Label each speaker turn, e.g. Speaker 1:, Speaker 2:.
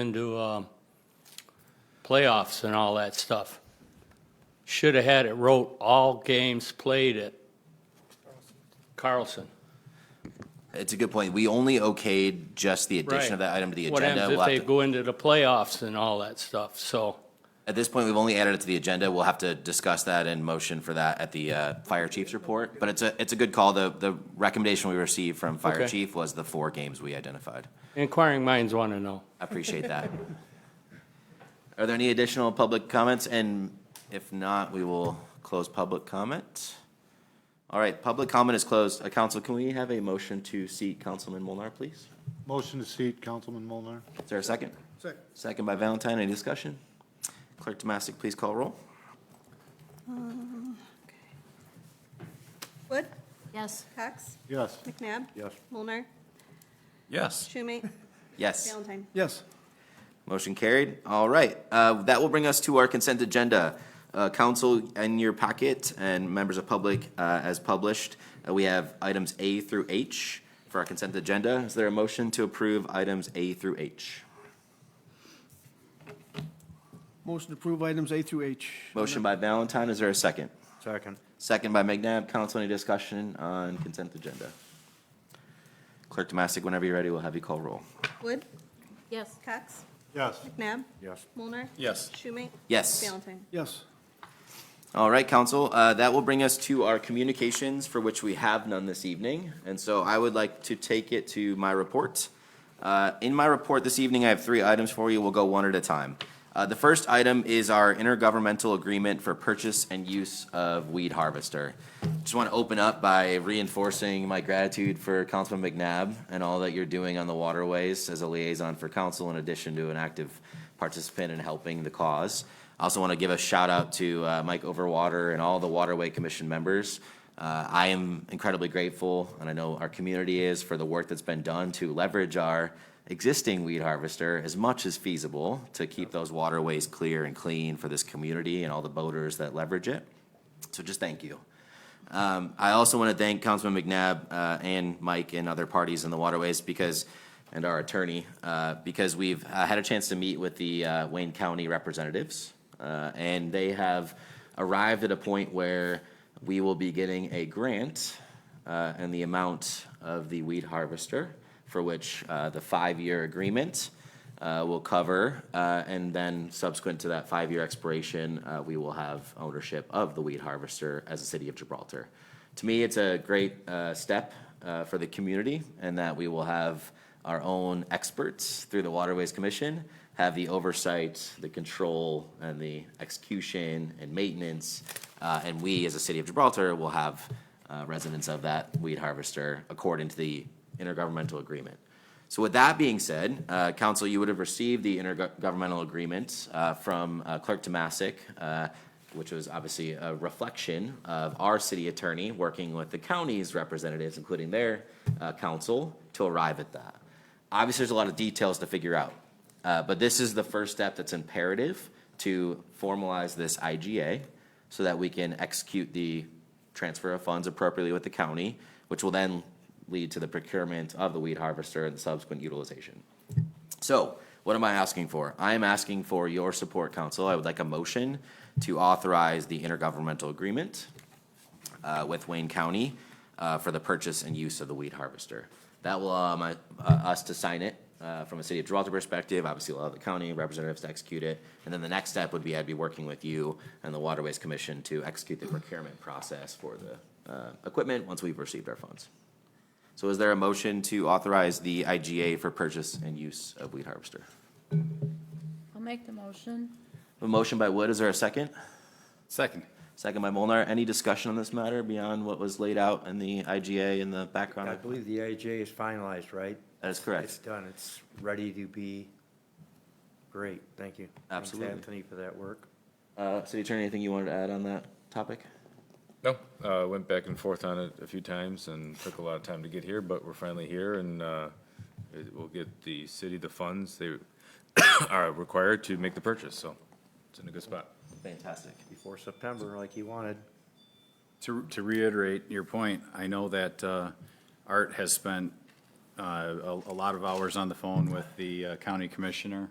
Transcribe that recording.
Speaker 1: into um, playoffs and all that stuff. Should have had it wrote, all games played at Carlson.
Speaker 2: It's a good point. We only okayed just the addition of
Speaker 1: Right.
Speaker 2: that item to the
Speaker 1: What
Speaker 2: agenda.
Speaker 1: happens
Speaker 2: We'll
Speaker 1: if they
Speaker 2: have to-
Speaker 1: go into the playoffs and all that stuff? So,
Speaker 2: At this point, we've only added it to the agenda. We'll have to discuss that and motion for that at the uh, fire chief's report. But it's a, it's a good call. The, the recommendation we received from fire
Speaker 1: Okay.
Speaker 2: chief was the four games we identified.
Speaker 1: inquiring minds want to know.
Speaker 2: I appreciate that. Are there any additional public comments? And if not, we will close public comment. All right, public comment is closed. Uh, Council, can we have a motion to seat Councilman Molnar, please?
Speaker 3: Motion to seat, Councilman Molnar.
Speaker 2: Is there a second?
Speaker 3: Second.
Speaker 2: Second by Valentine. Any discussion? Clerk Tomasic, please call roll.
Speaker 4: Wood,
Speaker 5: Yes.
Speaker 4: Cox,
Speaker 3: Yes.
Speaker 4: McNabb.
Speaker 3: Yes.
Speaker 4: Mulner,
Speaker 6: Yes.
Speaker 4: Schumate,
Speaker 2: Yes.
Speaker 4: Valentine.
Speaker 3: Yes.
Speaker 2: Motion carried. All right. Uh, That will bring us to our consent agenda. Uh, Council, in your packet, and members of public, uh, as published, uh, we have items A through H for our consent agenda. Is there a motion to approve items A through H?
Speaker 7: Motion to approve items A through H.
Speaker 2: Motion by Valentine. Is there a second?
Speaker 3: Second.
Speaker 2: Second by McNabb. Council, any discussion on consent agenda? Clerk Tomasic, whenever you're ready, we'll have you call roll.
Speaker 4: Wood,
Speaker 5: Yes.
Speaker 4: Cox,
Speaker 3: Yes.
Speaker 4: McNabb,
Speaker 3: Yes.
Speaker 4: Mulner,
Speaker 6: Yes.
Speaker 4: Schumate.
Speaker 2: Yes.
Speaker 4: Valentine.
Speaker 7: Yes.
Speaker 2: All right, council, uh, that will bring us to our communications for which we have none this evening. And so I would like to take it to my report. Uh, in my report this evening, I have three items for you. We'll go one at a time. Uh, the first item is our intergovernmental agreement for purchase and use of weed harvester. Just want to open up by reinforcing my gratitude for Councilman McNabb and all that you're doing on the waterways as a liaison for council in addition to an active participant in helping the cause. I also want to give a shout out to uh, Mike Overwater and all the Waterway Commission members. Uh, I am incredibly grateful, and I know our community is, for the work that's been done to leverage our existing weed harvester as much as feasible to keep those waterways clear and clean for this community and all the boaters that leverage it. So just thank you. Um, I also want to thank Councilman McNabb uh, and Mike and other parties in the waterways because, and our attorney, uh, because we've uh, had a chance to meet with the uh, Wayne County representatives, uh, and they have arrived at a point where we will be getting a grant uh, and the amount of the weed harvester, for which uh, the five-year agreement uh, will cover, uh, and then subsequent to that five-year expiration, uh, we will have ownership of the weed harvester as a city of Gibraltar. To me, it's a great uh, step uh, for the community, and that we will have our own experts through the Waterways Commission have the oversight, the control, and the execution and maintenance, uh, and we, as a city of Gibraltar, will have uh, residents of that weed harvester according to the intergovernmental agreement. So with that being said, uh, council, you would have received the intergovernmental agreement uh, from uh, Clerk Tomasic, uh, which was obviously a reflection of our city attorney working with the county's representatives, including their uh, council, to arrive at that. Obviously, there's a lot of details to figure out, uh, but this is the first step that's imperative to formalize this IGA so that we can execute the transfer of funds appropriately with the county, which will then lead to the procurement of the weed harvester and subsequent utilization. So what am I asking for? I am asking for your support, council. I would like a motion to authorize the intergovernmental agreement uh, with Wayne County uh, for the purchase and use of the weed harvester. That will allow my- uh, us to sign it uh, from a city of Gibraltar perspective, obviously allow the county representatives to execute it. And then the next step would be I'd be working with you and the Waterways Commission to execute the procurement process for the uh, equipment once we've received our funds. So is there a motion to authorize the IGA for purchase and use of weed harvester?
Speaker 5: I'll make the motion.
Speaker 2: A motion by Wood, is there a second?
Speaker 6: Second.
Speaker 2: Second by Molnar. Any discussion on this matter beyond what was laid out in the IGA in the background?
Speaker 8: I believe the IJ is finalized, right?
Speaker 2: That is
Speaker 8: It's
Speaker 2: correct.
Speaker 8: done, it's ready to be, great, thank you. Thanks,
Speaker 2: Absolutely.
Speaker 8: Anthony, for that work.
Speaker 2: Uh, City Attorney, anything you wanted to add on that topic?
Speaker 6: No, uh, went back and forth on it a few times and took a lot of time to get here, but we're finally here and, uh, it will get the city the funds they are required to make the purchase, so it's in a good spot.
Speaker 2: Fantastic.
Speaker 8: Before September, like you wanted.
Speaker 9: To, to reiterate your point, I know that uh, Art has spent
Speaker 6: uh, a a lot of hours on the phone with the uh, county commissioner